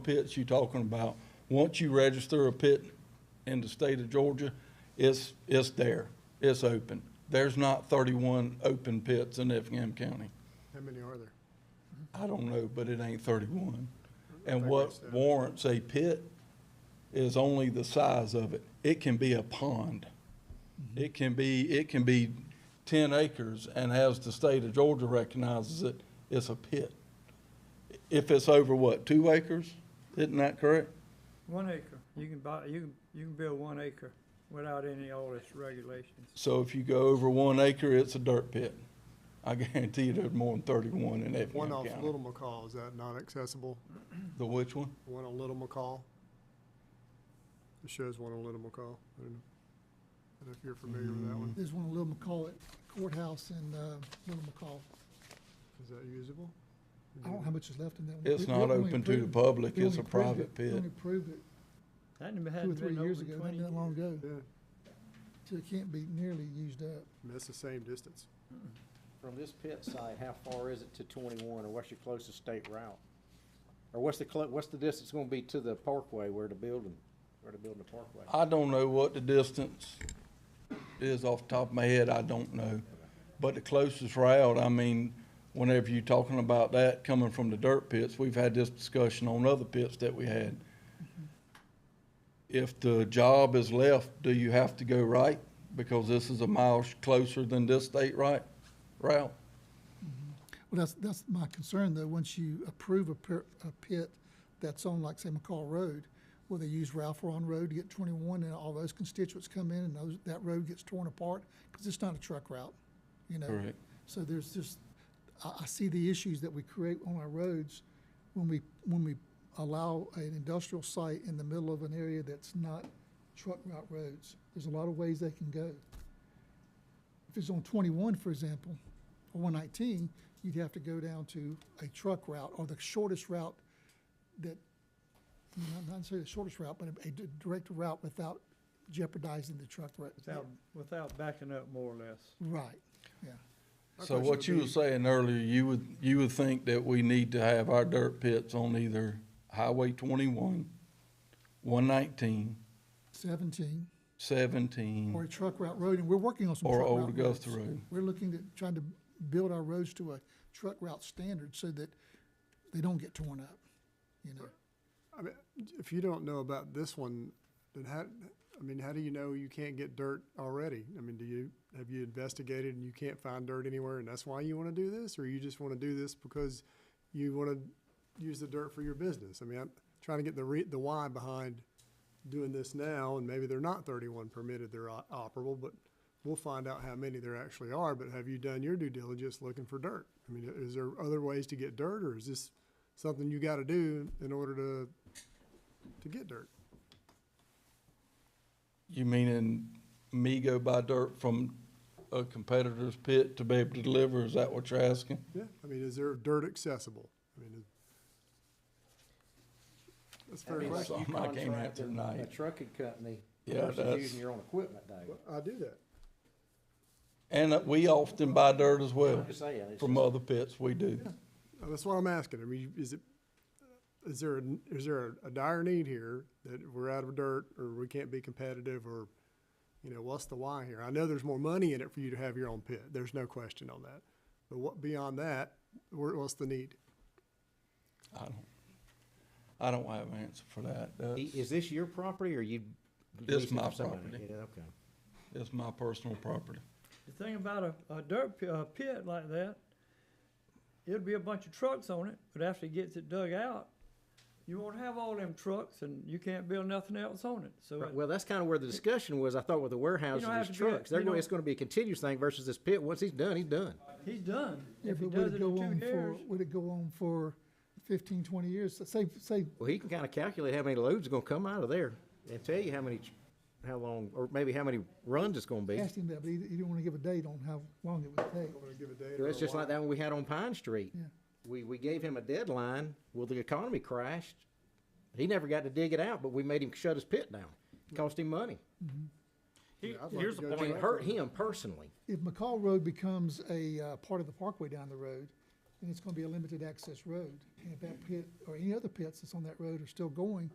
pits you talking about, once you register a pit in the state of Georgia, it's, it's there. It's open. There's not thirty-one open pits in Effingham County. How many are there? I don't know, but it ain't thirty-one. And think what it's that. warrants a pit is only the size of it. It can be a pond. It can be, it can be ten acres, and as the state of Georgia recognizes it, it's a pit. If it's over what, two acres? Isn't that correct? One acre, you can buy, you can, you can build one acre without any all this regulations. So if you go over one acre, it's a dirt pit. I guarantee you there's more than thirty-one in Effingham One off County. Little McCall, is that not accessible? The which one? One on Little McCall? It shows one on Little McCall. I don't know. I don't know if you're familiar with that one. There's one in Little McCall at courthouse in uh, Little McCall. Is that usable? I don't know how much is left in that one. It's We- we not only open to the approved- public. we It's a only approved private it- We pit. only approved it That hadn't been two or three open years ago, not twenty that long years. ago, Yeah, so it can't be nearly used up. and that's the same distance. From this pit site, how far is it to twenty-one, or what's your closest state route? Or what's the, clo- what's the distance gonna be to the parkway where the building, where the building the parkway? I don't know what the distance is off the top of my head, I don't know. But the closest route, I mean, whenever you're talking about that coming from the dirt pits, we've had this discussion on other pits that we had. If the job is left, do you have to go right? Because this is a mile sh- closer than this state right route. Well, that's, that's my concern, though, once you approve a per- a pit that's on, like, say, McCall Road, where they use Ralph Ron Road to get twenty-one, and all those constituents come in, and those, that road gets torn apart, because it's not a truck route, you know? Correct. So there's just, I, I see the issues that we create on our roads when we, when we allow an industrial site in the middle of an area that's not truck route roads. There's a lot of ways they can go. If it's on twenty-one, for example, or one nineteen, you'd have to go down to a truck route or the shortest route that, not not necessarily the shortest route, but a- a di- direct route without jeopardizing the truck route. Without, without backing up more or less. Right, yeah. My So question what would you were be- saying earlier, you would, you would think that we need to have our dirt pits on either Highway twenty-one, one nineteen, Seventeen, or a seventeen, truck route road, and we're working on Mm. some or truck route Old Augusta roads. Road. We're looking at trying to build our roads to a truck route standard so that they don't get torn up, you know? I mean, if you don't know about this one, then how, I mean, how do you know you can't get dirt already? I mean, do you, have you investigated and you can't find dirt anywhere and that's why you wanna do this? Or you just wanna do this because you wanna use the dirt for your business? I mean, I'm trying to get the re, the why behind doing this now and maybe they're not thirty-one permitted, they're o- operable, but we'll find out how many there actually are, but have you done your due diligence looking for dirt? I mean, is there other ways to get dirt or is this something you gotta do in order to to get dirt. You meaning me go buy dirt from a competitor's pit to be able to deliver, is that what you're asking? Yeah. I mean, is there dirt accessible? I mean, is- that's a That'd fair be like question. question. you Something I can't contracting answer tonight. A trucking company Yeah, versus that's- using your own equipment, Dave. I do that. And that we often buy dirt as well I'm just saying, it's from just- other pits, we do. Uh, That's what I'm asking. I mean, is it, is there, a- is there a- a dire need here that we're out of dirt or we can't be competitive or, you know, what's the why here? I know there's more money in it for you to have your own pit. There's no question on that. But what, beyond that, where, what's the need? I don't, I don't have an answer for that. I- That's, Is this your property or you? It's leasing my from somebody? property. Yeah, okay. that's my personal property. The thing about a, a dirt pi- a pit like that, it'll be a bunch of trucks on it, but after it gets it dug out, you won't have all them trucks and you can't build nothing else on it, so. Right, it- Well, that's kinda where the discussion was, I thought with the warehouse and have these to do it. trucks, they're You going, don't- it's gonna be a continuous thing versus this pit, once he's done, he's done. He's done. Yeah, If he but would does it it go in on two for, years, would it go on for fifteen, twenty years? So Say, say, Well, he can kinda calculate how many loads are gonna come out of there and tell you how many, ch- how long, or maybe how many runs it's gonna be. ask him that, but he, he didn't wanna give a date on how long it would take. I'm gonna give a date Yeah, or That's a just why. like that one we had on Pine Street. Yeah. We, we gave him a deadline. Well, the economy crashed. He never got to dig it out, but we made him shut his pit down. It Cost him money. He- I'd like Here's to the go I mean, point, it hurt him personally. If McCall Road becomes a, uh, part of the parkway down the road, then it's gonna be a limited access road. And if that pit or any other pits that's on that road are still going,